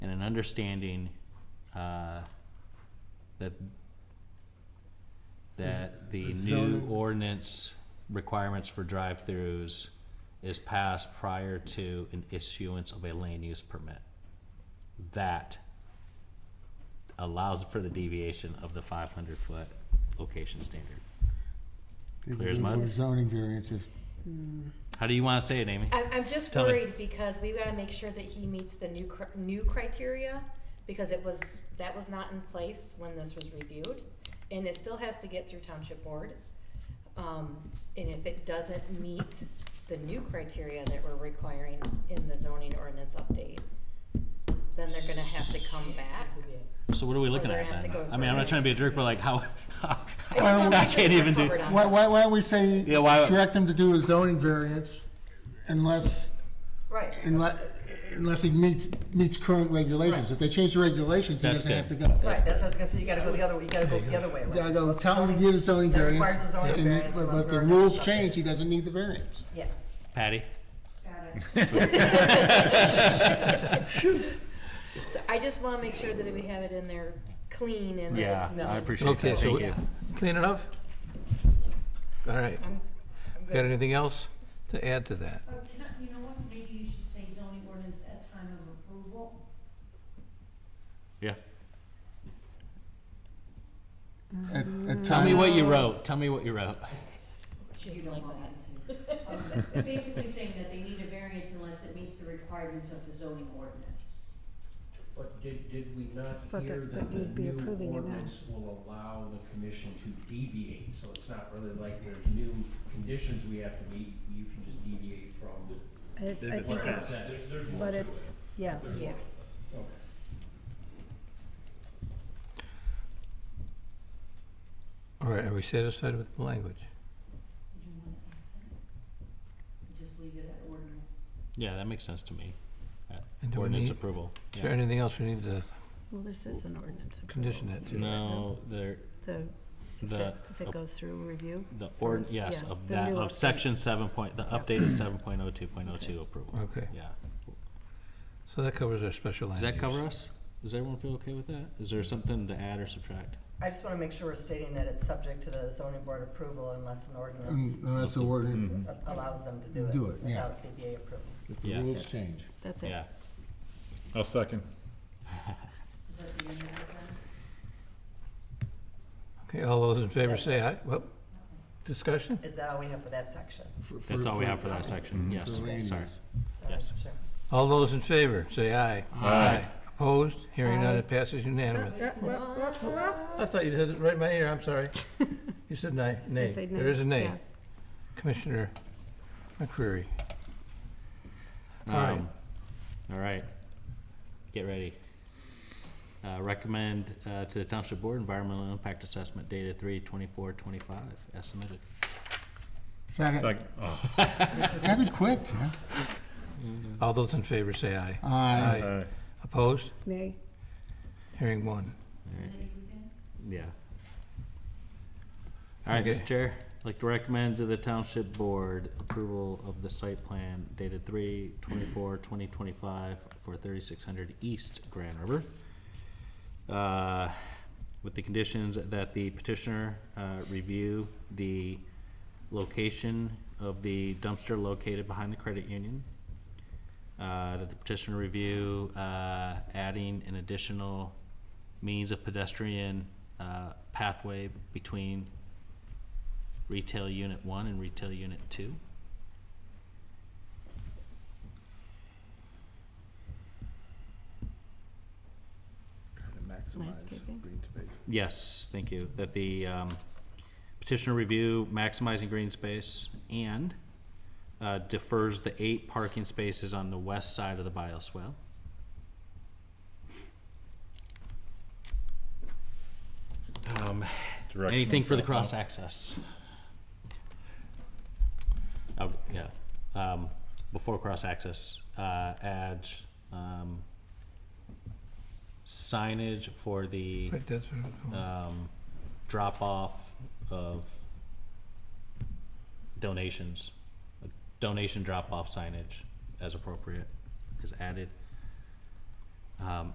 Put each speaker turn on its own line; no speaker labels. and an understanding, uh, that, that the
the
new
zoning-
ordinance requirements for drive-throughs is passed prior to an issuance of a land use permit. That allows for the deviation of the five hundred foot location standard.
It would
Clear as
be
mud?
For zoning variance, if,
How do you wanna say it, Amy?
I'm, I'm just
Tell me.
worried because we gotta make sure that he meets the new, cr- new criteria, because it was, that was not in place when this was reviewed, and it still has to get through township board. Um, and if it doesn't meet the new criteria that we're requiring in the zoning ordinance update, then they're gonna have to come back.
So what are we looking
they're gonna
at
have
then?
to go
I mean, I'm not
further.
trying to be a jerk, but like how,
wanna make
I
sure
can't
we're
even do.
covered on
why, why, why don't we say,
Yeah, why-
direct him to do a zoning variance unless,
Right.
unless, unless he meets, meets current regulations. If they change the regulations, he
That's
doesn't have to
good.
go.
Right, that's what I was gonna say, you gotta go the other way, you gotta go the other way. right?
I go, tell him to get a zoning
That
variance,
requires a zoning
and
variance
but-
from
but if the
our-
rules change, he doesn't need the variance.
Yeah.
Patty?
So I just wanna make sure that we have it in there clean and that
Yeah,
it's.
I
not-
appreciate
Okay,
that,
so
thank
we-
you.
Clean enough? All right.
I'm-
Got anything else to add to that?
Oh, can I, you know what, maybe you should say zoning ordinance at time of approval,
Yeah.
At- at
Tell me
time-
what you wrote, tell me what you wrote.
she
you
doesn't
don't
like
want
that.
me to. Um, Basically saying that they need a variance unless it meets the requirements of the zoning ordinance.
But did, did we not
But
hear
the-
that
but you'd
the
be
new
approving it now.
ordinance will allow the commission to deviate? So it's not really like there's new conditions we have to meet, you can just deviate from
It's, I think
what that
it's,
says. There's more
but
to
it's, yeah.
it. There's more.
Yeah.
Okay.
All right, are we satisfied with the language?
You don't wanna add that? Just leave it at ordinance.
Yeah, that makes sense to me. Uh,
And do we
Ordinance
need-
approval,
Is there
yeah.
anything else we need to
Well, this is an ordinance. approval.
condition that to?
No, there,
The, if
the,
it, if it goes through review.
the ord,
For-
yes,
yeah,
of
the
that,
new
of
update.
section seven point, the
Yeah.
updated seven point oh two point oh two approval,
Okay,
yeah.
so that covers our special land
Does that
use.
cover us? Does everyone feel okay with that? Is there something to add or subtract?
I just wanna make sure we're stating that it's subject to the zoning board approval unless an ordinance
Unless the
Mm-hmm.
word,
a- allows them to do it.
Mm. Do it, yeah.
Without CBA approval.
if the
Yeah.
rules change.
That's it.
Yeah,
I'll second.
Is that the end of it then?
Okay, all those in favor say aye. Well, discussion?
Is that all we have for that section?
for- for-
that's all we
for-
have for that section,
Mhm.
yes,
for land
sorry.
use.
Sorry,
Yes.
sure.
All those in favor say aye.
Aye.
Opposed? Hearing none, it passes unanimously. I thought you said it right in my ear, I'm sorry. You said nay,
They
nay.
say
There is a nay.
yes.
Commissioner McCreary. All right.
Um, all right. Get ready. Uh, recommend, uh, to the township board environmental impact assessment data three twenty-four twenty-five as submitted.
Second,
Second. Oh,
that'd be quick, huh?
All those in favor say aye.
Aye.
aye.
Opposed?
Nay.
Hearing one.
Is that you, Ben?
Yeah. All right,
Okay.
Mr. Chair, I'd like to recommend to the township board approval of the site plan dated three twenty-four twenty twenty-five for thirty-six hundred East Grand River. Uh, with the conditions that the petitioner, uh, review the location of the dumpster located behind the credit union. Uh, that the petitioner review, uh, adding an additional means of pedestrian uh, pathway between retail unit one and retail unit two.
Landscaping.
Yes, thank you, that the um, petitioner review maximizing green space and uh, defers the eight parking spaces on the west side of the bioswale. Um, Anything for the cross access? Oh, yeah, um, before cross access, uh, add, um, signage for the,
Right, that's what I was going-
um, drop off of donations. A Donation drop off signage as appropriate is added. Um,